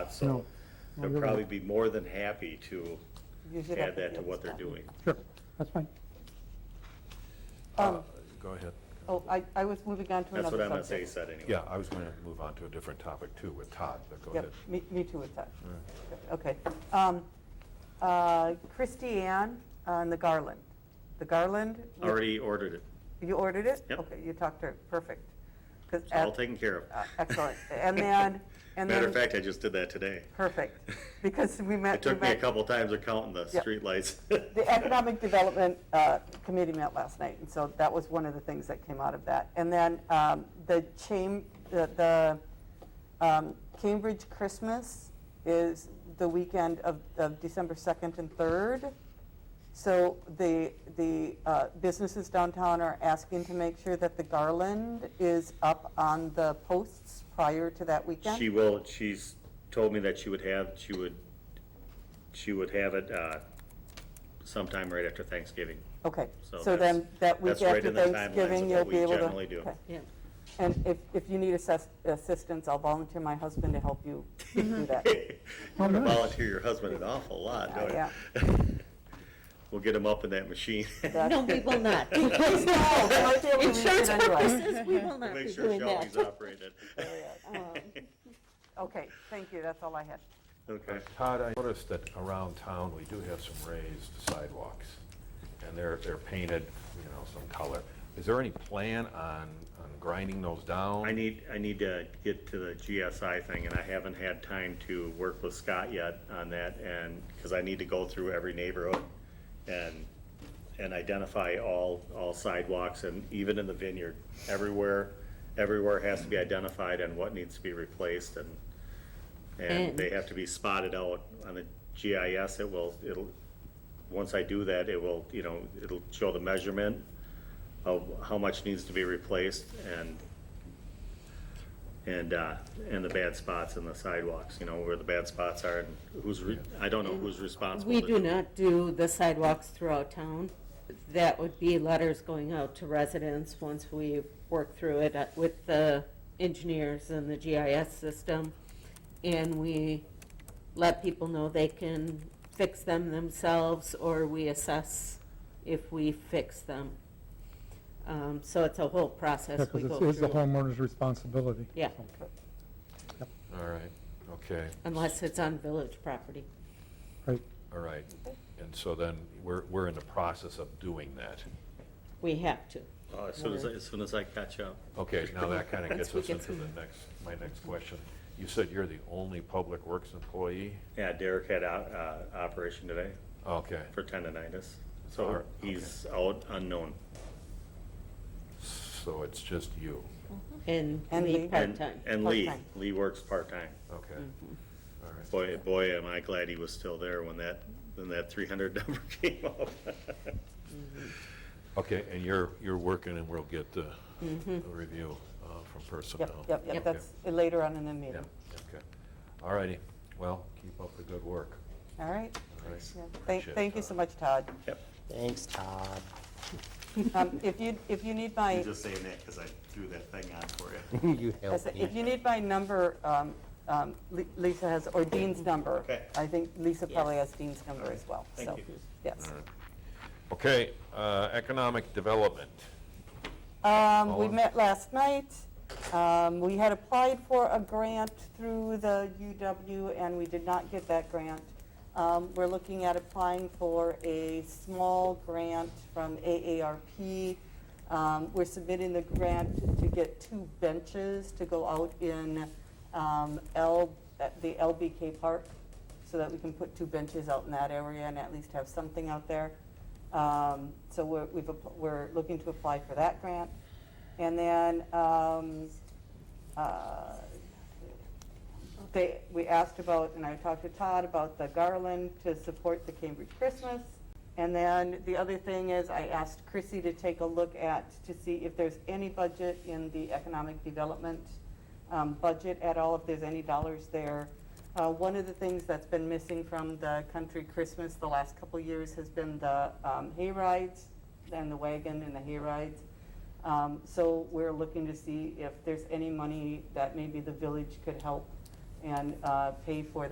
lot, so No. they'll probably be more than happy to Use it up add that at the to end what they're stop. doing. Sure, that's fine. Um, Uh, Go ahead. Oh, I, I was moving on to That's another what subject. I'm gonna say, said anyway. Yeah, I was going to move on to a different topic too with Todd, but go ahead. Yep, me, me too with that. Okay. Um, uh, Christie Ann on the garland. The garland? you- Already ordered it. You ordered it? Yep. Okay, you talked to her, perfect. 'Cause It's all at- taken care of. uh, Excellent. And then, and then. Matter of fact, I just did that today. Perfect, because we met. It took we me a met- couple times of counting the Yep. streetlights. The Economic Development uh, Committee met last night, and so that was one of the things that came out of that. And then um, the cham, the- the um, Cambridge Christmas is the weekend of of December 2nd and 3rd. So the, the uh, businesses downtown are asking to make sure that the garland is up on the posts prior to that weekend. She will, she's told me that she would have, she would, she would have it uh, sometime right after Thanksgiving. Okay, So so that's- then that week that's right after in the timelines Thanksgiving, of you'll what we be able to. generally do. okay. Yeah. And if, if you need assess- assistance, I'll volunteer my husband to help you Mm-hmm. do that. You're gonna volunteer your husband an awful lot, don't Oh, Yeah, you? We'll get him up in that machine. No, we will not. Please no, I feel we need it Insurance anyway. purposes, we will not Make be sure doing Shelby's that. operated. Okay, thank you, that's all I had. Okay. Todd, I noticed that around town, we do have some raised sidewalks, and they're, they're painted, you know, some color. Is there any plan on, on grinding those down? I need, I need to get to the GSI thing, and I haven't had time to work with Scott yet on that, and, because I need to go through every neighborhood and, and identify all, all sidewalks, and even in the vineyard, everywhere, everywhere has to be identified and what needs to be replaced, and, and And- they have to be spotted out on the GIS, it will, it'll, once I do that, it will, you know, it'll show the measurement of how much needs to be replaced, and and, uh, and the bad spots in the sidewalks, you know, where the bad spots are and who's, re- I don't know who's responsible. We to do not do the sidewalks throughout town. That would be letters going out to residents once we work through it uh, with the engineers and the GIS system. And we let people know they can fix them themselves, or we assess if we fix them. Um, So it's a whole process we go Because through. it's the homeowner's responsibility. Yeah, All right, okay, unless it's on village property. Right, all right. And so then, we're, we're in the process of doing that. We have to. Oh, As soon as, I- as soon as I catch up. Okay, now that kind of gets we us get into some- the next, my next question. You said you're the only Public Works employee? Yeah, Derek had out, uh, operation today Okay, for tendonitis, Oh, so okay. he's out unknown. so it's just you, And And Lee Lee. And- part-time. And Lee, Part-time. Lee works part-time. okay. Mm. All right. Boy, boy, am I glad he was still there when that, when that three hundred number came up. Okay, and you're, you're working and we'll get the the review uh, from Mm-hmm. Yep, personnel. yep, Okay. yep, that's later on in the Yeah, meeting. okay. All righty, well, keep up the good work. All right, All right. Yeah. thank, Appreciate thank you it, so much, Todd. Yep, Thanks, Todd. Um, If you, if you need my, I'm just saying that because I threw that thing on for you. You I helped said, me. if you need my number, um, um, Li- Lisa has, or Dean's number. Mm-hmm. Okay. I think Lisa probably Yes. has Dean's number All as well, thank so, you. yes. Okay, uh, economic development. Um, we Paula? met last night. Um, we had applied for a grant through the UW and we did not get that grant. Um, we're looking at applying for a small grant from AARP. Um, we're submitting the grant to get two benches to go out in, um, L, at the LBK Park so that we can put two benches out in that area and at least have something out there. Um, So we're, we've, app- we're looking to apply for that grant. And then, um, uh, they, we asked about, and I talked to Todd about the garland to support the Cambridge Christmas. And then the other thing is I asked Chrissy to take a look at, to see if there's any budget in the economic development um, budget at all, if there's any dollars there. Uh, One of the things that's been missing from the country Christmas the last couple years has been the um, hay rides and the wagon and the hay rides. Um, So we're looking to see if there's any money that maybe the village could help and uh, pay for that.